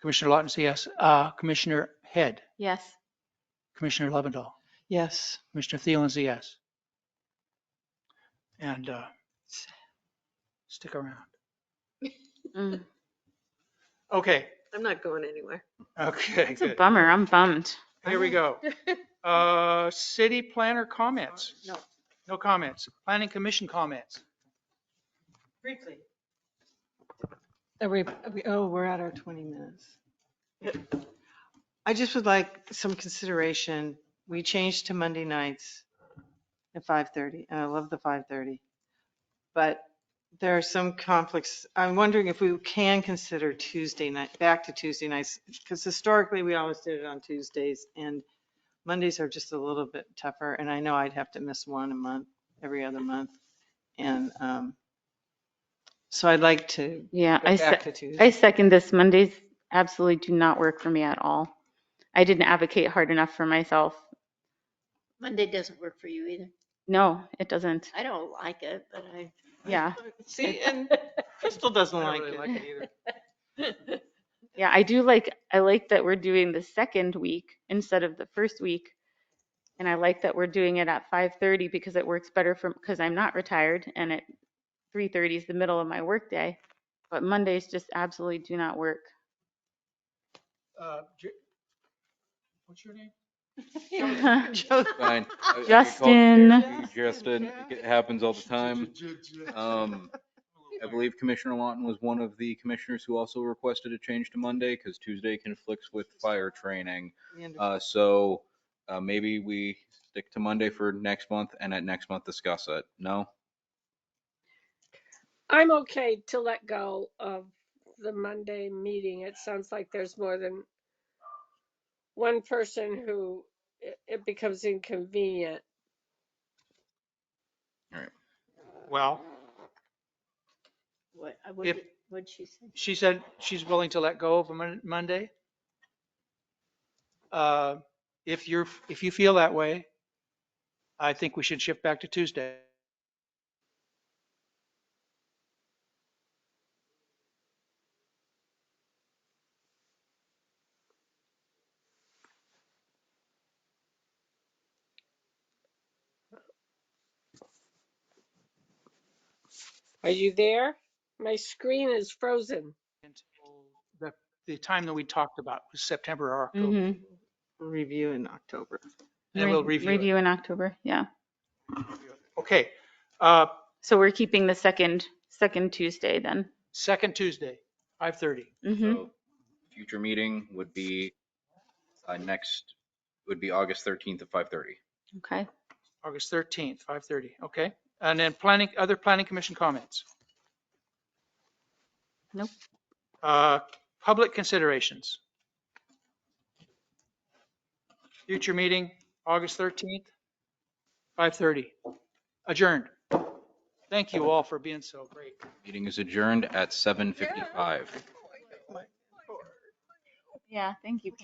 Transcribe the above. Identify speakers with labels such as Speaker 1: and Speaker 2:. Speaker 1: Commissioner Lawton, say yes. Uh, Commissioner Head,
Speaker 2: Yes.
Speaker 1: Commissioner Lovendall,
Speaker 3: Yes.
Speaker 1: Commissioner Thielen's a yes. And uh, stick around.
Speaker 2: Mm.
Speaker 1: Okay,
Speaker 4: I'm not going anywhere.
Speaker 1: okay,
Speaker 2: It's a
Speaker 1: good.
Speaker 2: bummer. I'm bummed.
Speaker 1: Here we go. Uh, City planner comments?
Speaker 3: Uh,
Speaker 4: No.
Speaker 1: No comments. Planning commission comments?
Speaker 3: Briefly. Are we, are we- oh, we're at our 20 minutes. I just would like some consideration. We changed to Monday nights at 5:30, and I love the 5:30. But there are some conflicts. I'm wondering if we can consider Tuesday night, back to Tuesday nights, because historically, we always did it on Tuesdays, and Mondays are just a little bit tougher, and I know I'd have to miss one a month, every other month. And um, so I'd like to
Speaker 2: Yeah,
Speaker 3: go
Speaker 2: I,
Speaker 3: back
Speaker 2: se-
Speaker 3: to Tuesday.
Speaker 2: I second this. Mondays absolutely do not work for me at all. I didn't advocate hard enough for myself.
Speaker 4: Monday doesn't work for you either.
Speaker 2: No, it doesn't.
Speaker 4: I don't like it, but I.
Speaker 2: Yeah,
Speaker 3: See, and Crystal doesn't
Speaker 1: I
Speaker 3: like
Speaker 1: don't really
Speaker 3: it.
Speaker 1: like it either.
Speaker 2: yeah, I do like, I like that we're doing the second week instead of the first week. And I like that we're doing it at 5:30 because it works better for, because I'm not retired and at 3:30 is the middle of my workday. But Mondays just absolutely do not work.
Speaker 1: Uh, Ju- What's your name?
Speaker 5: Fine. I- I get called
Speaker 2: Justin.
Speaker 5: there too, Justin, it happens all the time. Um, I believe Commissioner Lawton was one of the commissioners who also requested a change to Monday because Tuesday conflicts with fire training. Uh, so, uh, maybe we stick to Monday for next month and at next month discuss it. No?
Speaker 6: I'm okay to let go of the Monday meeting. It sounds like there's more than one person who it- it becomes inconvenient.
Speaker 1: Well,
Speaker 4: What, I
Speaker 1: If-
Speaker 4: would, what'd she say?
Speaker 1: she said she's willing to let go of Mon- Monday. Uh, If you're, if you feel that way, I think we should shift back to Tuesday.
Speaker 6: Are you there? My screen is frozen.
Speaker 1: until The, the time that we talked about was September or October.
Speaker 2: Mhm.
Speaker 3: Review in October.
Speaker 1: And we'll
Speaker 2: Re-
Speaker 1: review it.
Speaker 2: Review in October, yeah.
Speaker 1: Okay, uh,
Speaker 2: So we're keeping the second, second Tuesday then.
Speaker 1: second Tuesday, 5:30.
Speaker 2: hmm
Speaker 5: So, Future meeting would be, uh, next, would be August 13th at 5:30.
Speaker 2: okay.
Speaker 1: August 13th, 5:30, okay? And then planning, other planning commission comments?
Speaker 2: Nope.
Speaker 1: Uh, Public considerations. Future meeting, August 13th, 5:30. Adjourned. Thank you all for being so great.
Speaker 5: Meeting is adjourned at 7:55.
Speaker 2: Yeah, thank you.